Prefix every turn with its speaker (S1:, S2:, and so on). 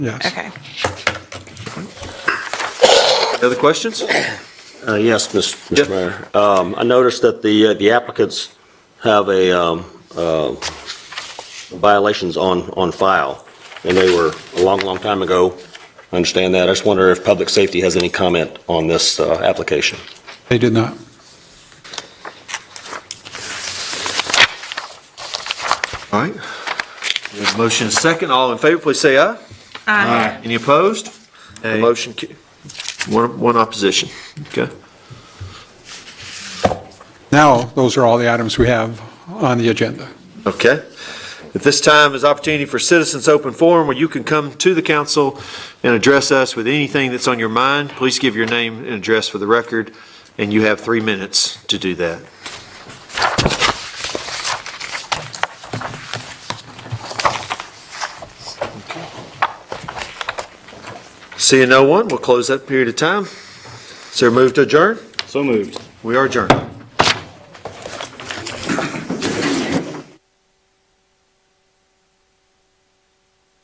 S1: Yes.
S2: Okay.
S3: Other questions?
S4: Uh, Yes, Mr.
S3: Yeah.
S4: Mr. Mayor. Um, I noticed that the uh, the applicants have a um, uh, violations on on file, and they were a long, long time ago. I understand that. I just wonder if public safety has any comment on this uh, application.
S1: They did not.
S3: All right. We have a motion and a second. All in favor, please say aye. Aye. Any opposed? The Motion, ca- one, one opposition. Okay.
S1: Now, those are all the items we have on the agenda.
S3: Okay. At this time is opportunity for citizens' open forum where you can come to the council and address us with anything that's on your mind. Please give your name and address for the record, and you have three minutes to do that. Seeing no one, we'll close that period of time. Is there a move to adjourn?
S5: So moved.
S3: We are adjourned.